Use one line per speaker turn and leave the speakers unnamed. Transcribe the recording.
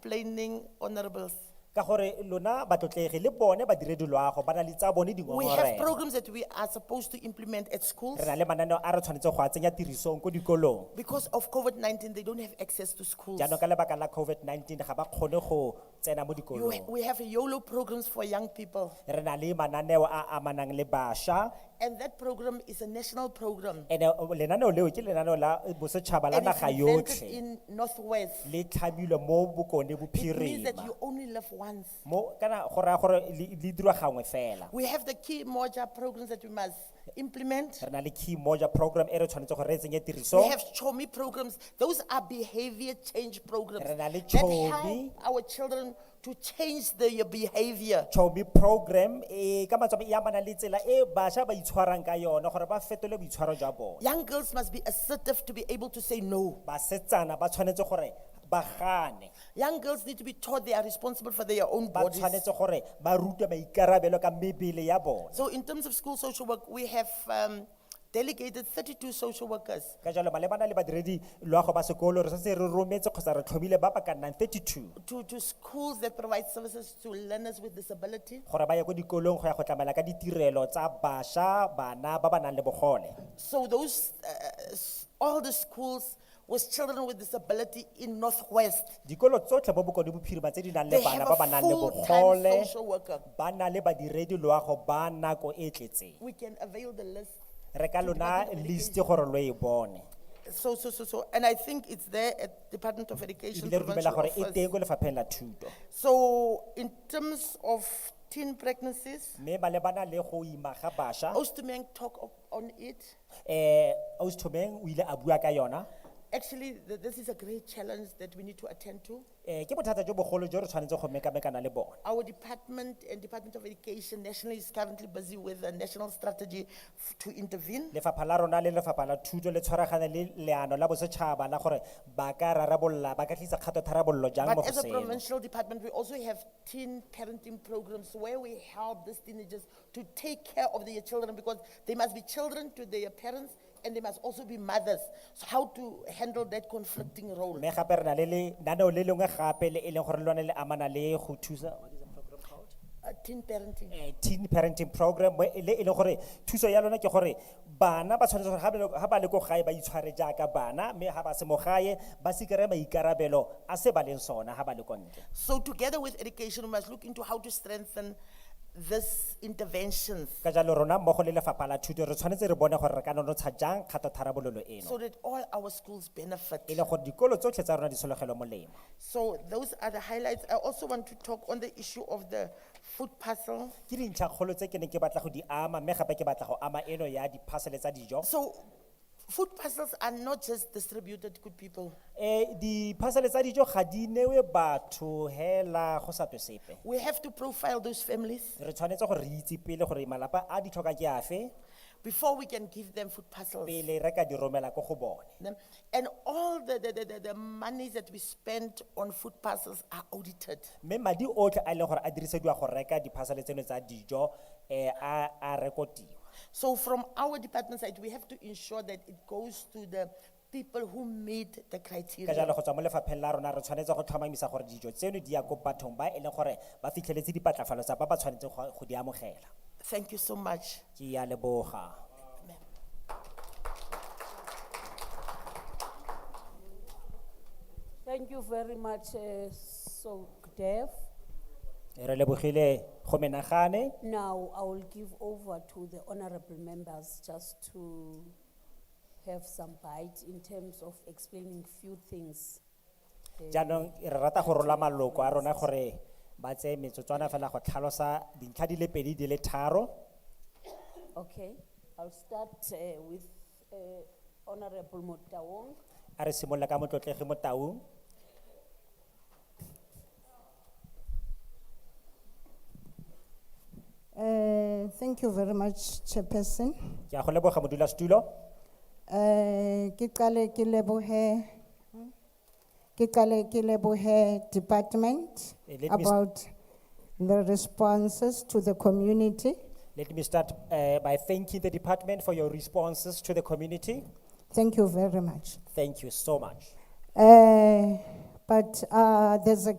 complaining honorables.
ka gore lona batlotlegi le bone badiredi loago ba na le tsa bone
We have
dingongorego
programs that we are supposed to implement at schools.
re na le mananeo a re tshwanetse go a tsenya tirisong ko dikolong
Because of COVID-19, they don't have access to schools.
jaanong ka lebaka la covid-19 ga ba kgone go tsena mo
You-
dikolong
We have YOLO programs for young people.
re na le mananeo a amanang le bašwa
And that program is a national program.
ande lenaneo leo ke lenaneo la bosetšhaba la
And it's
naga
invented
yotlhe
in Northwest.
le tlhamilwe mo bokone
It means that
bophirima
you only live once.
mo kana go raya gore le le dirwa gangwe fela
We have the key moja programs that we must implement.
re na le key moja program e re tshwanetse gore re
We
tsenye tirisong
have CHOMI programs. Those are behavior change programs.
Re na le
that help
CHOMI.
Our children to change their behavior.
chomi program eh ka matsomo ya bana le tsela e bašwa ba itshwarang ka yona gore ba fetole boitshwaro jwa bone
Young girls must be assertive to be able to say no.
basetsana ba tshwanetse gore ba gane
Young girls need to be taught they are responsible for their own
ba
bodies.
tshwanetse gore ba rutwe maikarabelo ka mebele ya bone
So in terms of school social work, we have um, delegated thirty-two social workers.
ka jalo malebana le badiredi loago ba sekolo re setse re rometse kgotsa re tlhomile ba ba ka nnang 32
To, to schools that provide services to learners with disability.
gore ba ye ko dikolong go ya go tlamela ka ditirelo tsa bašwa bana ba ba nang le bogole
So those, uh, s- all the schools with children with disability in Northwest.
dikolo tsotlhe mo bokone bophirima tse di nang le
They
bana
have
ba ba
a
nang le
full-time
bogole
social worker.
ba na le badiredi loago ba nako e e tletseng
We can avail the list.
re ka lona list gore lo e bone
So, so, so, so, and I think it's there at Department of Education.
ebile re
provincial
dumela gore e
office.
teng ko lefapheng la thuto
So in terms of teen pregnancies,
mme malebana le go ima ga bašwa
Ostermann talk of- on it.
um austomeng o ile a bua ka yona
Actually, th- this is a great challenge that we need to attend to.
um ke bothata jo bogolo jo re tshwanetse go mekamekana le bona
Our department and Department of Education nationally is currently busy with a national strategy f- to intervene.
lefapha la rona le lefapha la thuto le tshwaragane le leano la bosetšhaba la gore ba ka rarabolola ba ka tlisa kgato tharabololo jang mo
But
go
as a
seno
provincial department, we also have teen parenting programs where we help these teenagers to take care of their children because they must be children to their parents and they must also be mothers. So how to handle that conflicting role?
mme gape re na le lenaneo le lengwe gape le e leng gore le lone le amana le go thusa what is the program called?
Uh, Teen parenting.
eh, teen parenting program mo e le e leng gore thuso ya lona ke gore bana ba tshwanetse gore ga ba le- ga ba le ko gae ba itshware jaaka bana mme ga ba se mo gae ba se kry-e maikarabelo a se ba leng sona ga ba le ko ntle
So together with education, we must look into how to strengthen these interventions
ka jalo rona mmogo le lefapha la thuto re tshwanetse re bone gore re ka nonotsha jang kgato tharabololo eno
so that all our schools benefit.
e le gore dikolo tsotlhe tsa rona di sologelwe molemo
So those are the highlights. I also want to talk on the issue of the food parcel.
ke dintlhakgolo tse ke neng ke batla go di ama mme gape ke batla go ama eno ya diphasele tsa dijo
So food parcels are not just distributed to good people.
um diphasele tsa dijo ga di newe batho hela go sa twe sepe
We have to profile those families
re tshwanetse gore re itse pele gore malapa a di tlhoka ke afe
before we can give them food parcels.
pele re ka di romela ko go bone
Them- And all the, the, the, the, the monies that we spend on food parcels are audited.
mme madi otlhe a e leng gore a dirisediwa go reka diphasale tseno tsa dijo um a a rekotiwa
So from our department side, we have to ensure that it goes to the people who meet the
ka jalo
criteria.
go tswa mo lefapheng la rona re tshwanetse go tlhomamisa gore dijo tseno di ya ko bathong ba e leng gore ba fitlheletse dipatlafalo tsa ba ba tshwanetseng go go di amogela
Thank you so much.
ke ya leboga
Thank you very much, uh, Sokdev.
re lebogile go menagane
Now, I will give over to the honorable members just to have some bite in terms of explaining few things.
jaanong re rata go rola maloko a rona gore ba tseye metsotswana fela go tlhalosa dintlha di le pedi di le tharo
Okay, I'll start uh, with uh, Honorable Motawong.
a re simolola ka motlotlegi mo taung
Uh, Thank you very much, Chairperson.
ke a go leboga modulasetulo
Uh, Ke qale ke lebohe, ke qale ke lebohe department
Eh, let me s-
about the responses to the community.
let me start uh, by thanking the department for your responses to the community
Thank you very much.
thank you so much
Uh, But uh, there's a